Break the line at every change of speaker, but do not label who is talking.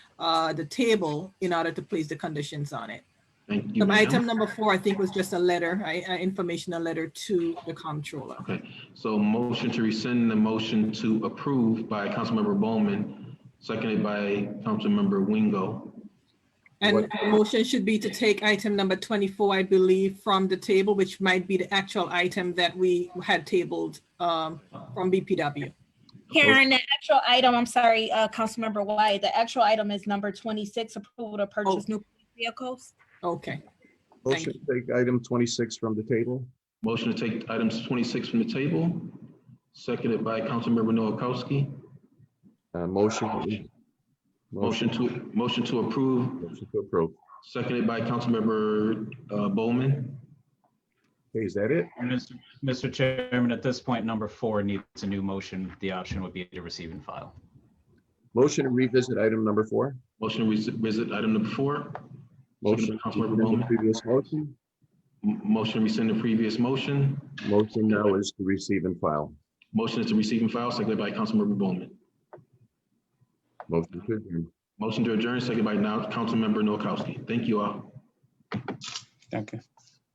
uh, the table in order to place the conditions on it.
Thank you,
So item
ma'am.
number four, I think, was just a letter, I- uh, informational letter to the comptroller.
Okay, so motion to rescind the motion to approve by Councilmember Bowman, seconded by Councilmember Wingo.
And
What-
the motion should be to take item number 24, I believe, from the table, which might be the actual item that we had tabled um, from BPW.
Karen, the actual item, I'm sorry, uh, Councilmember Wyatt, the actual item is number twenty-six, approval to purchase new vehicles.
Okay, Thank
Motion to take item twenty-six from the table.
Motion to take items twenty-six from the table, seconded by Councilmember Noakowski.
Uh, motion.
Motion to, motion to approve,
Motion to approve.
seconded by Councilmember uh, Bowman.
Okay, is that it?
Mr. Mr. Chairman, at this point, number four needs a new motion. The option would be to receive and file.
Motion to revisit item number four.
Motion to res- visit item number four,
Motion. to
Councilmember
rescind the
Bowman.
Previous motion.
M- motion to rescind the previous motion.
Motion now is to receive and file.
Motion is to receive and file, seconded by Councilmember Bowman.
Motion to adjourn.
Motion to adjourn, seconded by now Councilmember Noakowski. Thank you all.
Danke.